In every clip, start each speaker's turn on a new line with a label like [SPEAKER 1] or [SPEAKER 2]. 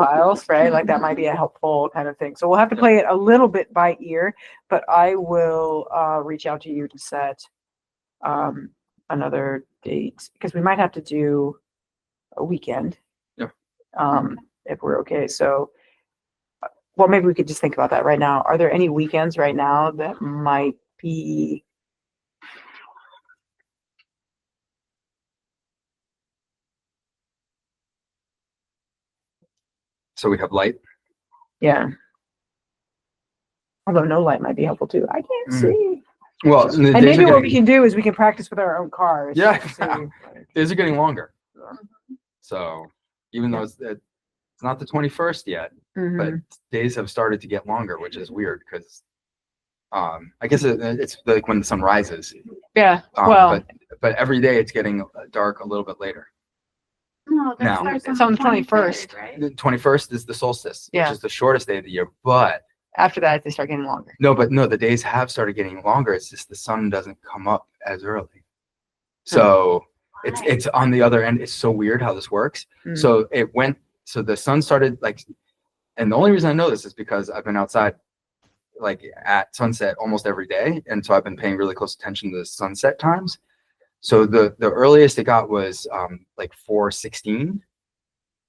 [SPEAKER 1] profiles, right? Like that might be a helpful kind of thing. So we'll have to play it a little bit by ear, but I will uh, reach out to you to set um, another date because we might have to do a weekend.
[SPEAKER 2] Yeah.
[SPEAKER 1] Um, if we're okay. So, uh, well, maybe we could just think about that right now. Are there any weekends right now that might be?
[SPEAKER 2] So we have light.
[SPEAKER 1] Yeah. Although no light might be helpful too. I can't
[SPEAKER 2] Mm.
[SPEAKER 1] see.
[SPEAKER 2] Well, and the
[SPEAKER 1] And
[SPEAKER 2] days,
[SPEAKER 1] maybe
[SPEAKER 2] are
[SPEAKER 1] what we
[SPEAKER 2] getting,
[SPEAKER 1] can do is we can practice with our own cars.
[SPEAKER 2] Yeah.
[SPEAKER 1] to see.
[SPEAKER 2] days are getting longer.
[SPEAKER 1] Mm-hmm.
[SPEAKER 2] So even though it's, it's not the 21st yet, but
[SPEAKER 1] Mhm.
[SPEAKER 2] days have started to get longer, which is weird because um, I guess it, it's like when the sun rises.
[SPEAKER 1] Yeah,
[SPEAKER 2] Um,
[SPEAKER 1] well,
[SPEAKER 2] but, but every day it's getting dark a little bit later.
[SPEAKER 3] No,
[SPEAKER 2] No.
[SPEAKER 3] that starts
[SPEAKER 1] It's on
[SPEAKER 3] on
[SPEAKER 1] the
[SPEAKER 3] the twenty-first,
[SPEAKER 1] 21st.
[SPEAKER 3] right?
[SPEAKER 2] The 21st is the solstice,
[SPEAKER 1] Yeah.
[SPEAKER 2] which is the shortest day of the year. But
[SPEAKER 1] after that, they start getting longer.
[SPEAKER 2] no, but no, the days have started getting longer. It's just the sun doesn't come up as early. So it's
[SPEAKER 3] Why?
[SPEAKER 2] it's on the other end. It's so weird how this works.
[SPEAKER 1] Mm.
[SPEAKER 2] So it went. So the sun started like, and the only reason I know this is because I've been outside, like at sunset almost every day, and so I've been paying really close attention to the sunset times. So the the earliest it got was um, like four sixteen,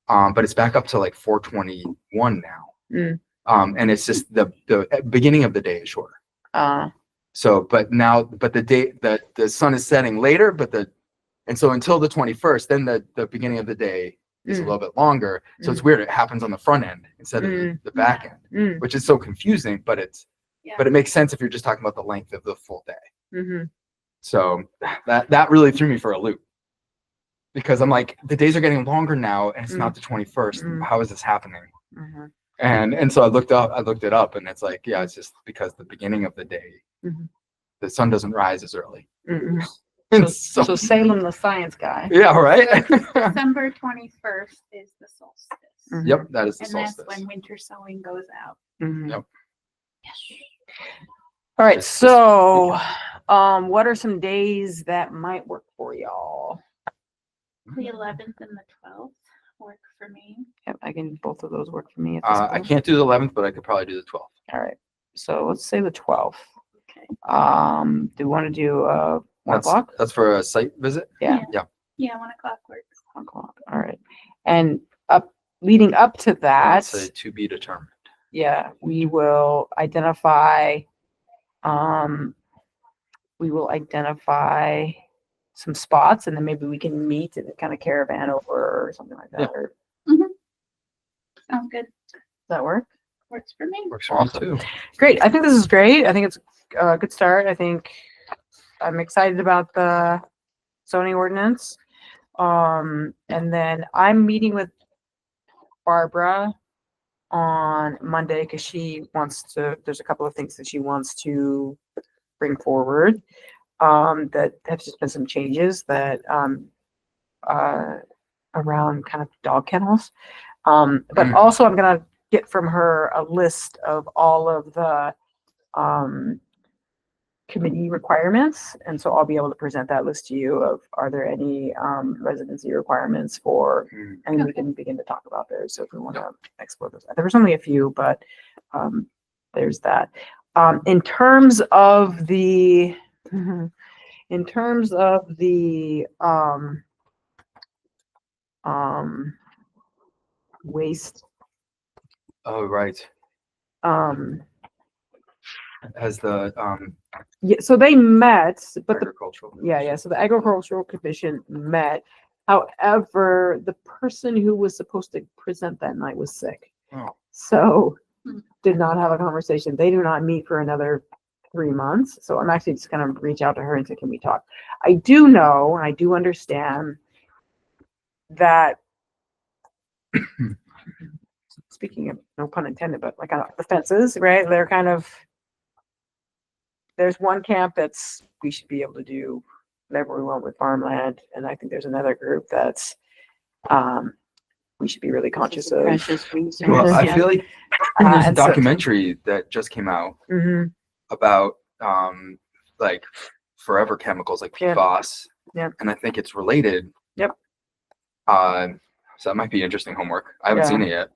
[SPEAKER 2] um, but it's back up to like four twenty one now.
[SPEAKER 1] Mm.
[SPEAKER 2] Um, and it's just the the uh, beginning of the day is shorter.
[SPEAKER 1] Uh,
[SPEAKER 2] So, but now, but the day the the sun is setting later, but the and so until the twenty first, then the the beginning of the day is a
[SPEAKER 1] Mm.
[SPEAKER 2] little bit longer. So it's weird. It happens on the front end instead of the,
[SPEAKER 1] Mm.
[SPEAKER 2] the back end,
[SPEAKER 1] mm,
[SPEAKER 2] which is so confusing. But it's
[SPEAKER 3] Yeah.
[SPEAKER 2] but it makes sense if you're just talking about the length of the full day.
[SPEAKER 1] mhm.
[SPEAKER 2] So that that really threw me for a loop because I'm like the days are getting longer now, and it's not the twenty first.
[SPEAKER 1] Mm.
[SPEAKER 2] How is this happening?
[SPEAKER 1] Mhm.
[SPEAKER 2] And and so I looked up, I looked it up, and it's like yeah, it's just because the beginning of the day,
[SPEAKER 1] Mhm.
[SPEAKER 2] the sun doesn't rise as early.
[SPEAKER 1] Mm-mm.
[SPEAKER 2] And
[SPEAKER 1] So so
[SPEAKER 2] so-
[SPEAKER 1] Salem, the science guy.
[SPEAKER 2] yeah, right.
[SPEAKER 3] December twenty-first is the solstice.
[SPEAKER 1] Mhm.
[SPEAKER 2] yep, that is the
[SPEAKER 3] And that's
[SPEAKER 2] solstice.
[SPEAKER 3] when winter sowing goes out.
[SPEAKER 1] Mhm.
[SPEAKER 2] Yep.
[SPEAKER 1] All right,
[SPEAKER 2] Just this
[SPEAKER 1] so um, what are some days that might work for y'all?
[SPEAKER 3] The eleventh and the twelfth work for me.
[SPEAKER 1] Yep, I can both of those work for me. At this
[SPEAKER 2] Uh, I
[SPEAKER 1] point.
[SPEAKER 2] can't do the eleventh, but I could probably do the twelfth.
[SPEAKER 1] All right, so let's say the twelfth.
[SPEAKER 3] Okay.
[SPEAKER 1] Um, do you want to do uh, one
[SPEAKER 2] That's
[SPEAKER 1] o'clock?
[SPEAKER 2] that's for a site visit.
[SPEAKER 1] Yeah.
[SPEAKER 2] Yeah.
[SPEAKER 3] Yeah, one o'clock works.
[SPEAKER 1] One o'clock. All right, and up leading up to that.
[SPEAKER 2] That's a to be determined.
[SPEAKER 1] Yeah, we will identify, um, we will identify some spots and then maybe we can meet and kind of caravan over or something like
[SPEAKER 2] Yeah.
[SPEAKER 1] that. Or, does
[SPEAKER 3] Sound good.
[SPEAKER 1] that work?
[SPEAKER 3] Works for me.
[SPEAKER 2] Works for me
[SPEAKER 1] Awesome.
[SPEAKER 2] too.
[SPEAKER 1] Great. I think this is great. I think it's uh, a good start. I think I'm excited about the zoning ordinance. Um, and then I'm meeting with Barbara on Monday because she wants to, there's a couple of things that she wants to bring forward. Um, that have just been some changes that, um, uh, around kind of dog kennels. Um, but
[SPEAKER 2] Mm.
[SPEAKER 1] also I'm gonna get from her a list of all of the um, committee requirements. And so I'll be able to present that list to you of, are there any um, residency requirements for,
[SPEAKER 2] Mm.
[SPEAKER 1] and we
[SPEAKER 3] Okay.
[SPEAKER 1] can begin to talk about those. So if we want to explore those, there was only a few, but um, there's that. Um, in terms of the, in terms of the um, um, waste,
[SPEAKER 2] Oh right.
[SPEAKER 1] um,
[SPEAKER 2] As the um
[SPEAKER 1] Yeah, so they met, but the,
[SPEAKER 2] agricultural.
[SPEAKER 1] yeah, yeah, so the agricultural commission met. However, the person who was supposed to present that night was sick.
[SPEAKER 2] Oh.
[SPEAKER 1] So
[SPEAKER 3] Hmm.
[SPEAKER 1] did not have a conversation. They do not meet for another three months. So I'm actually just gonna reach out to her and say, can we talk? I do know, and I do understand that speaking of, no pun intended, but like on the fences, right? They're kind of, there's one camp that's, we should be able to do whatever we want with farmland. And I think there's another group that's, um, we should be really conscious of.
[SPEAKER 4] Precious resource.
[SPEAKER 2] Well, I
[SPEAKER 1] Yeah.
[SPEAKER 2] feel like
[SPEAKER 1] Uh,
[SPEAKER 2] there's a
[SPEAKER 1] and so-
[SPEAKER 2] documentary that just came out
[SPEAKER 1] Mhm,
[SPEAKER 2] about um like forever chemicals like
[SPEAKER 1] Yeah.
[SPEAKER 2] PFAS.
[SPEAKER 1] Yep.
[SPEAKER 2] And I think it's related.
[SPEAKER 1] Yep.
[SPEAKER 2] Uh, so that might be interesting homework. I haven't
[SPEAKER 1] Yeah.
[SPEAKER 2] seen it yet.